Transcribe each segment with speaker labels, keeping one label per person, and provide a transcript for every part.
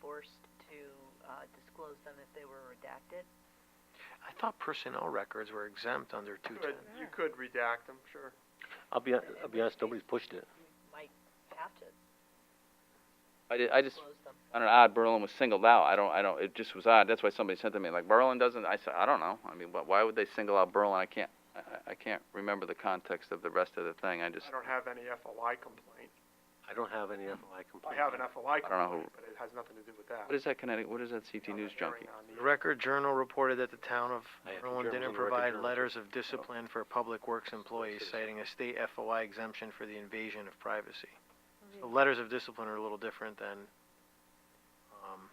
Speaker 1: forced to uh, disclose them if they were redacted?
Speaker 2: I thought personnel records were exempt under two ten.
Speaker 3: Could, you could redact them, sure.
Speaker 4: I'll be, hon- I'll be honest, nobody's pushed it.
Speaker 1: You might have to
Speaker 5: I did, I just,
Speaker 1: disclose them.
Speaker 5: I don't know, odd Berlin was singled out, I don't, I don't, it just was odd, that's why somebody sent to me, like, Berlin doesn't, I said, I don't know, I mean, wh- why would they single out Berlin, I can't, I, I- I can't remember the context of the rest of the thing, I just,
Speaker 3: I don't have any FLI complaint.
Speaker 4: I don't have any FLI
Speaker 3: I
Speaker 4: complaint.
Speaker 3: have an FLI
Speaker 5: I don't know who-
Speaker 3: complaint, but it has nothing to do with that.
Speaker 5: what is that Connecticut, what is that CT
Speaker 3: On the
Speaker 5: News junkie?
Speaker 3: hearing on
Speaker 2: The
Speaker 3: the-
Speaker 2: Record Journal reported that the town of
Speaker 4: I have the
Speaker 2: Berlin
Speaker 4: journals
Speaker 2: didn't
Speaker 4: and the Record
Speaker 2: provide
Speaker 4: Journal.
Speaker 2: letters of discipline for public works employees, citing
Speaker 4: Citizen.
Speaker 2: a state FOI exemption for the invasion of privacy. So letters of discipline are a little different than, um,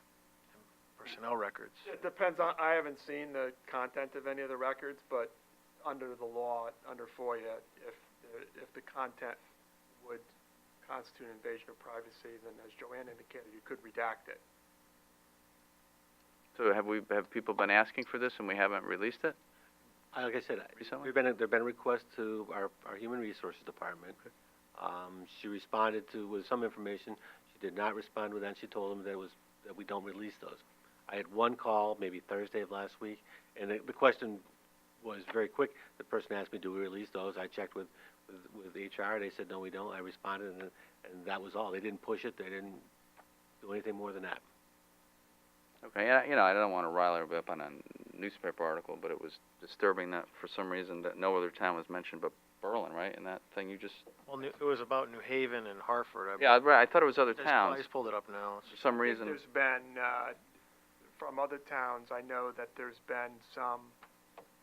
Speaker 2: personnel records.
Speaker 3: It depends on, I haven't seen the content of any of the records, but under the law, under FOIA, if, if the content would constitute invasion of privacy, then as Joanne indicated, you could redact it.
Speaker 5: So have we, have people been asking for this and we haven't released it
Speaker 4: I- Like I said, I-
Speaker 5: recently?
Speaker 4: We've been, there've been requests to our, our human resources department. Um, she responded to, with some information, she did not respond with that, she told them that it was, that we don't release those. I had one call, maybe Thursday of last week, and the, the question was very quick, the person asked me, do we release those? I checked with, with, with HR, they said, no, we don't, I responded, and, and that was all, they didn't push it, they didn't do anything more than that.
Speaker 5: Okay, and I, you know, I don't want to rile everybody up on a newspaper article, but it was disturbing that for some reason that no other town was mentioned but Berlin, right? And that thing you just,
Speaker 2: Well, New- it was about New Haven and Hartford, I
Speaker 5: yeah, I- right, I thought it was other
Speaker 2: Just- I
Speaker 5: towns.
Speaker 2: just pulled it up now. It's-
Speaker 5: For some reason,
Speaker 3: There's been, uh, from other towns, I know that there's been some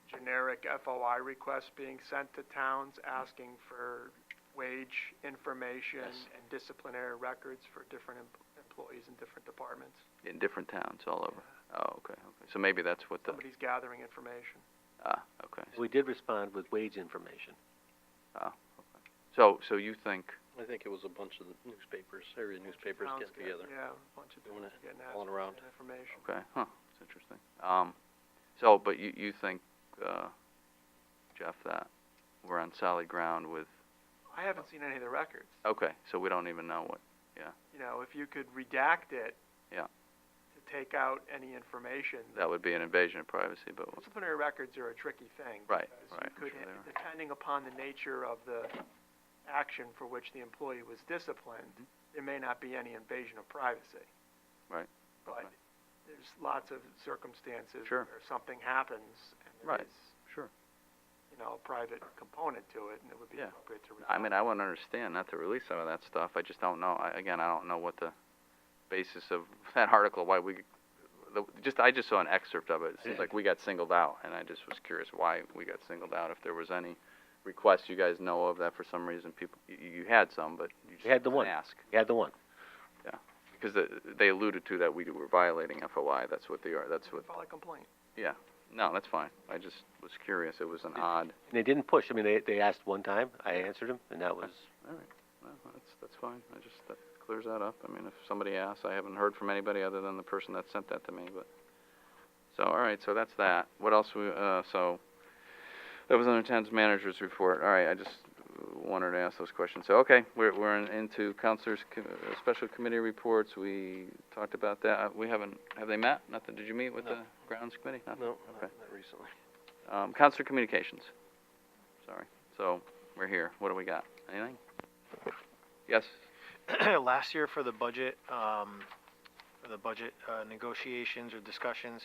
Speaker 3: generic FOI requests being sent to towns asking for wage information
Speaker 5: Yes.
Speaker 3: and disciplinary records for different em- employees in different departments.
Speaker 5: in different towns all over. Oh, okay, okay. So maybe that's what the,
Speaker 3: Somebody's gathering information.
Speaker 5: ah, okay.
Speaker 4: We did respond with wage information.
Speaker 5: So, so you think,
Speaker 6: I think it was a bunch of the newspapers, area newspapers
Speaker 3: Towns
Speaker 6: getting together.
Speaker 3: Yeah, a bunch of
Speaker 6: Doing
Speaker 3: towns
Speaker 6: it,
Speaker 3: getting
Speaker 6: all
Speaker 3: asked
Speaker 6: around.
Speaker 3: for information.
Speaker 5: okay, huh, it's interesting. Um, so, but you, you think, uh, Jeff, that we're on solid ground with,
Speaker 3: I haven't seen any of the records.
Speaker 5: okay, so we don't even know what,
Speaker 3: You know, if you could redact it.
Speaker 5: Yeah.
Speaker 3: To take out any information.
Speaker 5: that would be an invasion of privacy, but,
Speaker 3: Disciplinary records are a tricky thing.
Speaker 5: Right,
Speaker 3: because you
Speaker 5: right, I'm
Speaker 3: could-
Speaker 5: sure they are.
Speaker 3: Depending upon the nature of the action for which the employee was disciplined, there may not be any invasion of privacy.
Speaker 5: Mm-hmm. Right,
Speaker 3: But
Speaker 5: right.
Speaker 3: there's lots of circumstances.
Speaker 5: Sure.
Speaker 3: Where something happens and
Speaker 5: Right,
Speaker 3: there is,
Speaker 5: sure.
Speaker 3: you know, a private component to it and it would be
Speaker 5: Yeah.
Speaker 3: appropriate to.
Speaker 5: I mean,
Speaker 3: redact.
Speaker 5: I wouldn't understand not to release some of that stuff. I just don't know. I, again, I don't know what the basis of that article. Why we the, just I just saw an excerpt of it. It seems like we got singled out, and I just was curious why we got singled out. If there was any requests you guys know of that for some reason people you, you had some, but you just
Speaker 4: We had the
Speaker 5: didn't
Speaker 4: one.
Speaker 5: ask
Speaker 4: You had the one.
Speaker 5: because the, they alluded to that we were violating FOI. That's what they are. That's what.
Speaker 3: File a complaint.
Speaker 5: No, that's fine. I just was curious. It was an odd.
Speaker 4: And they didn't push. I mean, they, they asked one time, I answered them, and that was,
Speaker 5: All right. Well, that's, that's fine. I just, that clears that up. I mean, if somebody asks, I haven't heard from anybody other than the person that sent that to me, but. So, all right, so that's that. What else we, uh, so, that was under town's manager's report. All right, I just wanted to ask those questions. So, okay, we're, we're in- into counselors, co- uh, special committee reports. We talked about that. Uh, We haven't, have they met? Nothing? Did you meet with
Speaker 6: No.
Speaker 5: the grounds committee? Nothing?
Speaker 6: No, not,
Speaker 5: Okay.
Speaker 6: not recently.
Speaker 5: Um, counselor communications. Sorry. So, we're here. What do we got? Anything? Yes?
Speaker 2: last year for the budget, um, for the budget, uh, negotiations or discussions,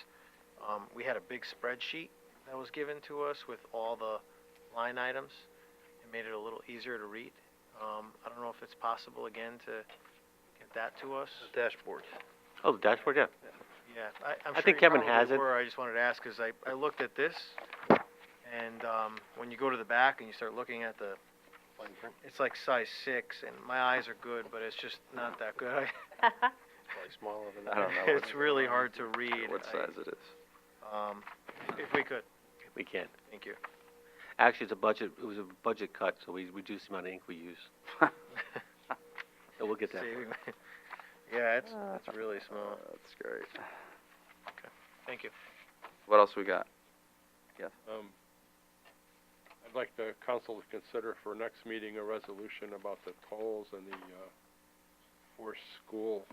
Speaker 2: um, we had a big spreadsheet that was given to us with all the line items. It made it a little easier to read. Um, I don't know if it's possible again to get that to us.
Speaker 6: Dashboard.
Speaker 4: oh, the dashboard, yeah.
Speaker 2: Yeah, I, I'm
Speaker 4: I
Speaker 2: sure
Speaker 4: think
Speaker 2: you
Speaker 4: Kevin
Speaker 2: probably
Speaker 4: has it.
Speaker 2: were. I just wanted to ask, cause I, I looked at this, and, um, when you go to the back and you start looking at the, it's like size six, and my eyes are good, but it's just not that good. I-
Speaker 6: Probably smaller than that.
Speaker 5: I don't know what's
Speaker 2: It's really hard to read.
Speaker 5: what
Speaker 2: I-
Speaker 5: size it is.
Speaker 2: Um, if we could,
Speaker 4: We can.
Speaker 2: thank you.
Speaker 4: Actually, it's a budget, it was a budget cut, so we reduced the amount of ink we use. So we'll get that.
Speaker 2: See, we- Yeah, it's, it's really small.
Speaker 5: Uh, that's great.
Speaker 2: Thank you.
Speaker 5: What else we got?
Speaker 7: Um, I'd like the council to consider for next meeting a resolution about the tolls and the, uh, forced school